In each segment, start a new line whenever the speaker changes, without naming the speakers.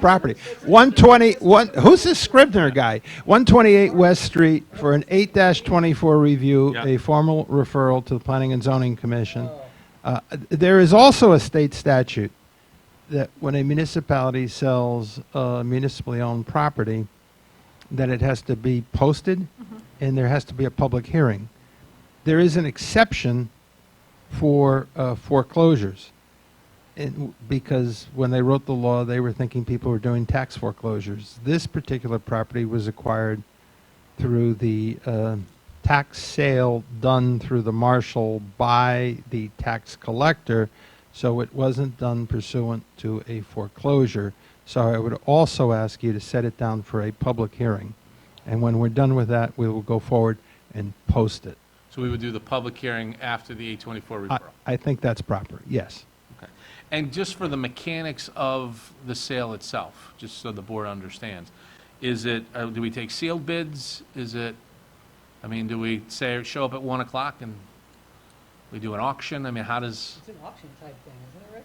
property. 120, one, who's this Scribner guy? 128 West Street for an 8-24 review,
Yeah.
a formal referral to the Planning and Zoning Commission. Uh, There is also a state statute that when a municipality sells uh, municipally owned property, that it has to be posted and there has to be a public hearing. There is an exception for uh, foreclosures. And w- because when they wrote the law, they were thinking people were doing tax foreclosures. This particular property was acquired through the uh, tax sale done through the marshal by the tax collector, so it wasn't done pursuant to a foreclosure. So I would also ask you to set it down for a public hearing. And when we're done with that, we will go forward and post it.
So we would do the public hearing after the 824
I,
referral?
I think that's proper, yes.
Okay. And just for the mechanics of the sale itself, just so the board understands, is it, uh, do we take sealed bids? Is it, I mean, do we say, show up at 1 o'clock and we do an auction? I mean, how does,
It's an auction type thing, isn't it, Rich?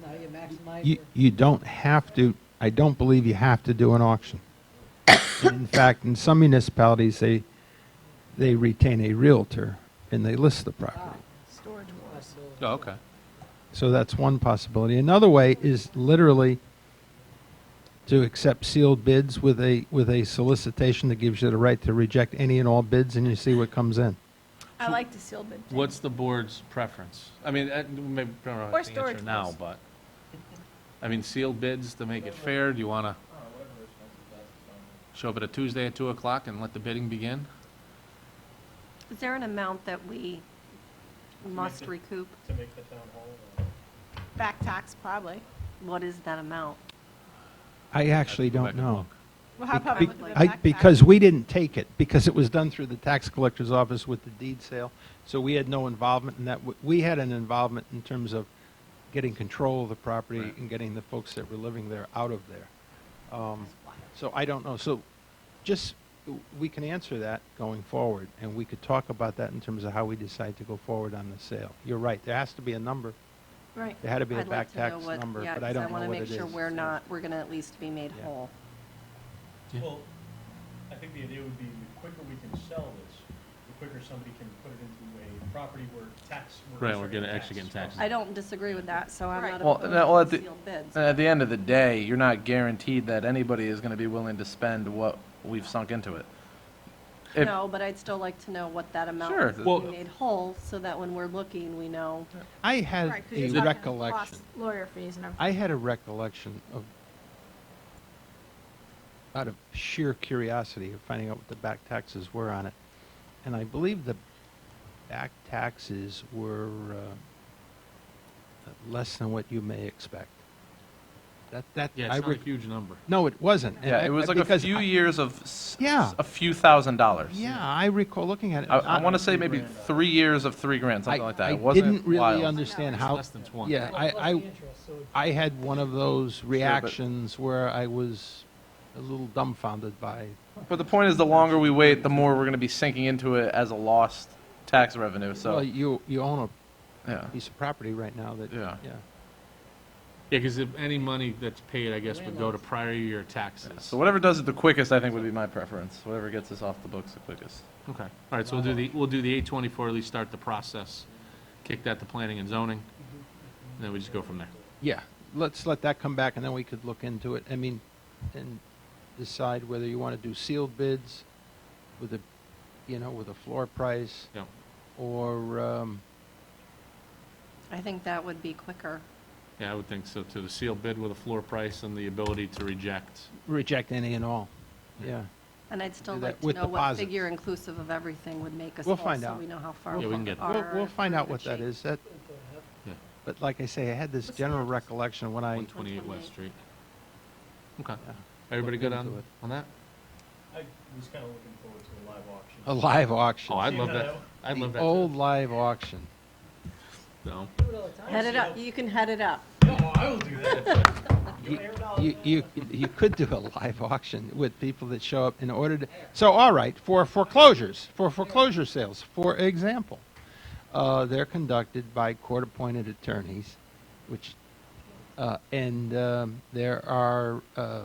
Now you maximize
You,
your,
you don't have to, I don't believe you have to do an auction. And In fact, in some municipalities, they, they retain a realtor and they list the property.
Storage wars.
oh, okay.
So that's one possibility. Another way is literally to accept sealed bids with a, with a solicitation that gives you the right to reject any and all bids and you see what comes in.
I like the seal bid. thing.
What's the board's preference? I mean, uh, maybe, I don't know
Or
what the
storage
answer now,
bills.
but, I mean, sealed bids to make it fair, do you want to show up at a Tuesday at 2 o'clock and let the bidding begin?
Is there an amount that we must recoup?
to make the town hall. or-
Back tax, probably. What is that amount?
I actually
go back
don't
and
know.
look.
Well, how about
Be-
with the
I-
back tax?
Because we didn't take it, because it was done through the tax collector's office with the deed sale, so we had no involvement in that. W- We had an involvement in terms of getting control of the property
Right.
and getting the folks that were living there out of there. Um, So I don't know, so just, w- we can answer that going forward, and we could talk about that in terms of how we decide to go forward on the sale. You're right, there has to be a number,
Right.
there had to be a
I'd
back
like to know
tax
what-
number,
yeah,
but I
'cause
don't know
wanna
what it
make sure
is,
we're
so.
not, we're gonna at least be made
Yeah.
whole.
Yeah.
Well, I think the idea would be the quicker we can sell this, the quicker somebody can put it into a property where tax. where
Right,
it's
we're
already
gonna- actually
taxed.
getting taxed.
I don't disagree with that, so I'm
Right.
not
Well, no, well,
opposed
at
to
the- uh,
sealed bids.
And at the end of the day, you're not guaranteed that anybody is going to be willing to spend what we've sunk into it. If-
No, but I'd still like to know what that amount
Sure.
is to
Well-
be made whole, so that when we're looking, we know.
I had
Right, 'cause
a
you're talking
recollection.
costs, Lawyer fees and everything.
I had a recollection of, out of sheer curiosity of finding out what the back taxes were on it. And I believe the back taxes were uh, less than what you may expect. That, that,
Yeah,
I
it's not a
rec-
huge number.
no, it wasn't. And
Yeah,
I-
it was
I-
like a
because
few
I-
years of, s-
Yeah.
a few thousand dollars.
Yeah, I recall looking at it.
I, I want to say maybe three years of three grand, something like that.
I
It wasn't
didn't really
wild.
understand
It's
how,
less than 20.
yeah, I,
plus the
I.
interest, so
I had one of those
but-
reactions where I was a little dumbfounded by.
But the point is, the longer we wait, the more we're going to be sinking into it as a lost tax revenue,
well,
so,
you you own
yeah.
a piece of property right now that
Yeah.
Yeah, because any money that's paid, I guess, would go to prior year taxes.
So whatever does it the quickest, I think would be my preference, whatever gets us off the books the quickest.
Okay. All right, so we'll do the, we'll do the eight twenty-four, at least start the process, kick that to planning and zoning, and then we just go from there.
yeah. Let's let that come back and then we could look into it. I mean, and decide whether you want to do sealed bids with a, you know, with a floor price
Yeah.
or um,
I think that would be quicker.
Yeah, I would think so, too. The sealed bid with a floor price and the ability to reject.
reject any and all. Yeah.
And I'd still
Do
like
that
to
with
know what
deposits.
figure inclusive of everything would make us
We'll
whole,
find
so
out.
we know how far
Yeah, we can
we
get-
We'll,
are.
we'll find
in
out
good
what that
shape.
is. That,
Yeah.
but like I say, I had this
What's the
general
address?
recollection when I.
One twenty-eight West Street.
128.
Okay.
yeah.
Everybody
Look
good
into
on,
it.
on that?
I was kind of looking forward to a live auction.
A live auction.
Oh, I'd
See
love
how
that.
that-
I'd love
the
that. too.
old live auction.
No.
do it all the time.
Head it up, you can head it up.
No, I will do that.
You,
air it out.
you, you, you could do a live auction with people that show up in order to, so, all right, for foreclosures, for foreclosure sales, for example, uh, they're conducted by court-appointed attorneys, which Uh, and um, there are uh,